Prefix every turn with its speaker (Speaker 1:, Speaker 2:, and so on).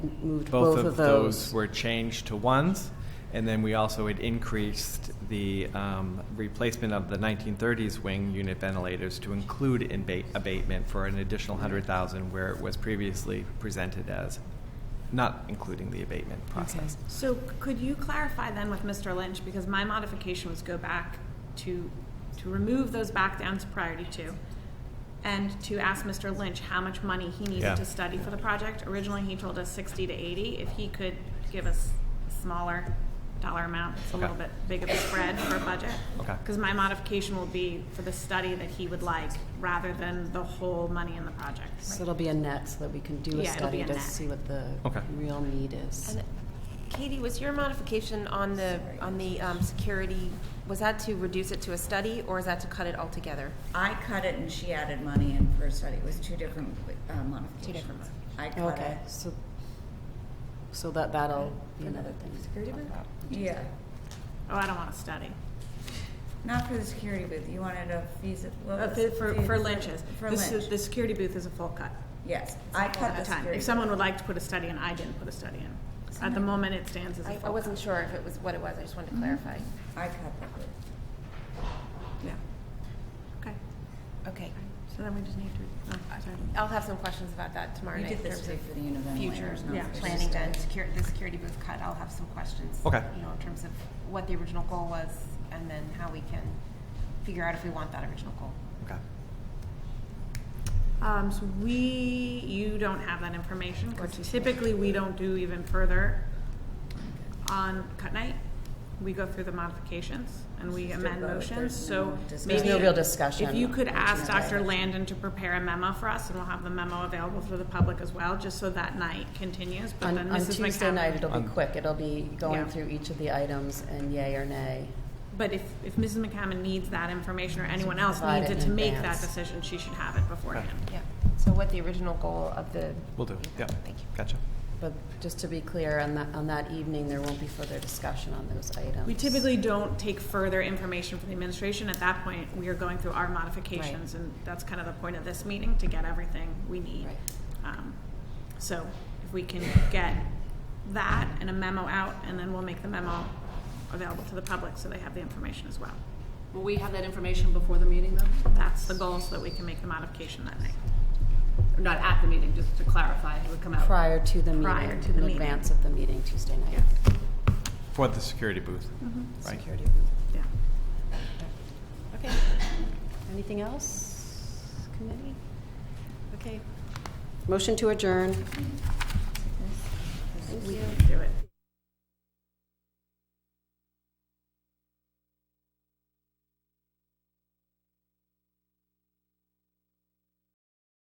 Speaker 1: moved
Speaker 2: Both of those were changed to ones, and then we also had increased the um, replacement of the 1930s wing unit ventilators to include in ba- abatement for an additional 100,000 where it was previously presented as not including the abatement process.
Speaker 3: So could you clarify then with Mr. Lynch, because my modification was go back to, to remove those back down to priority two, and to ask Mr. Lynch how much money he
Speaker 2: Yeah.
Speaker 3: needed to study for the project. Originally, he told us sixty to eighty. If he could give us a smaller dollar amount, it's a
Speaker 2: Okay.
Speaker 3: little bit big of a spread for a budget.
Speaker 2: Okay.
Speaker 3: Because my modification will be for the study that he would like, rather than the whole money in the project.
Speaker 1: So it'll be a net, so that we can do a
Speaker 3: Yeah, it'll be
Speaker 1: study
Speaker 3: a
Speaker 1: to
Speaker 3: net.
Speaker 1: see what the
Speaker 2: Okay.
Speaker 1: real need is.
Speaker 4: And Katie, was your modification on the, on the um, security, was that to reduce it to a study, or is that to cut it altogether?
Speaker 5: I cut it and she added money in for a study. It was two different uh, modifications.
Speaker 4: Two different mod-
Speaker 5: I cut
Speaker 1: Okay,
Speaker 5: it.
Speaker 1: so, so that, that'll be another thing.
Speaker 4: Security bid?
Speaker 5: Yeah,
Speaker 3: Oh, I don't want to study.
Speaker 5: not for the security booth. You wanted a fees, what
Speaker 3: Uh,
Speaker 5: was
Speaker 3: For,
Speaker 5: it?
Speaker 3: for-
Speaker 5: Fees-
Speaker 3: for lynches.
Speaker 5: For
Speaker 3: This is-
Speaker 5: lynch,
Speaker 3: The security booth is a full cut.
Speaker 5: yes. I cut
Speaker 3: at
Speaker 5: the
Speaker 3: a time.
Speaker 5: security.
Speaker 3: If someone would like to put a study in, I didn't put a study in. At the moment, it stands as a
Speaker 4: I,
Speaker 3: full
Speaker 4: I wasn't
Speaker 3: cut.
Speaker 4: sure if it was what it was, I just wanted to clarify.
Speaker 5: booth. I cut the booth.
Speaker 3: Yeah. Okay,
Speaker 4: Okay,
Speaker 3: so then we just need to, oh, sorry.
Speaker 4: I'll have some questions about that tomorrow
Speaker 5: You
Speaker 4: night.
Speaker 5: did
Speaker 4: in
Speaker 5: this
Speaker 4: terms of
Speaker 5: for the unit ventilator.
Speaker 4: Future
Speaker 5: not
Speaker 3: yeah.
Speaker 5: for
Speaker 4: planning
Speaker 5: the
Speaker 4: then,
Speaker 5: study.
Speaker 4: secure, the security booth cut, I'll have some questions.
Speaker 2: Okay.
Speaker 4: You know, in terms of what the original goal was, and then how we can figure out if we want that original goal.
Speaker 2: Okay.
Speaker 3: Um, so we, you don't have that information, because typically, we don't do even further on cut night. We go through the modifications and we
Speaker 5: Just
Speaker 3: amend
Speaker 5: a vote.
Speaker 3: motions,
Speaker 5: There's
Speaker 3: so
Speaker 5: no discussion.
Speaker 3: maybe.
Speaker 1: There's no real discussion
Speaker 3: If you could
Speaker 1: on
Speaker 3: ask
Speaker 5: tonight.
Speaker 3: Dr. Landon to prepare a memo for us, and we'll have the memo available for the public as well, just so that night continues, but
Speaker 1: On,
Speaker 3: then
Speaker 1: on
Speaker 3: Mrs.
Speaker 1: Tuesday night,
Speaker 3: McCaffrey.
Speaker 1: it'll be
Speaker 2: Um,
Speaker 1: quick, it'll be
Speaker 3: Yeah.
Speaker 1: going through each of the items and yay or nay.
Speaker 3: But if, if Mrs. McCammon needs that information, or anyone else
Speaker 1: Provide
Speaker 3: needs
Speaker 1: it
Speaker 3: it
Speaker 1: in
Speaker 3: to make that
Speaker 1: advance.
Speaker 3: decision, she should have it beforehand.
Speaker 4: Yeah, so what the original goal of the.
Speaker 2: Will do. Yeah.
Speaker 4: Thank you.
Speaker 2: Gotcha.
Speaker 1: But just to be clear, on that, on that evening, there won't be further discussion on those items.
Speaker 3: We typically don't take further information from the administration. At that point, we are going through our modifications, and that's kind of the point of this meeting, to get everything we need.
Speaker 1: Right.
Speaker 3: Um, So if we can get that and a memo out, and then we'll make the memo available to the public so they have the information as well.
Speaker 6: Will we have that information before the meeting though?
Speaker 3: That's the goal, so that we can make the modification that night.
Speaker 6: Or Not at the meeting, just to clarify, it would come out.
Speaker 1: Prior to the meeting.
Speaker 3: Prior to the
Speaker 1: In
Speaker 3: meeting.
Speaker 1: advance of the meeting Tuesday night.
Speaker 2: For the security booth. Right.
Speaker 1: Security booth.
Speaker 3: Yeah.
Speaker 1: Okay. Anything else, committee? Okay. Motion to adjourn.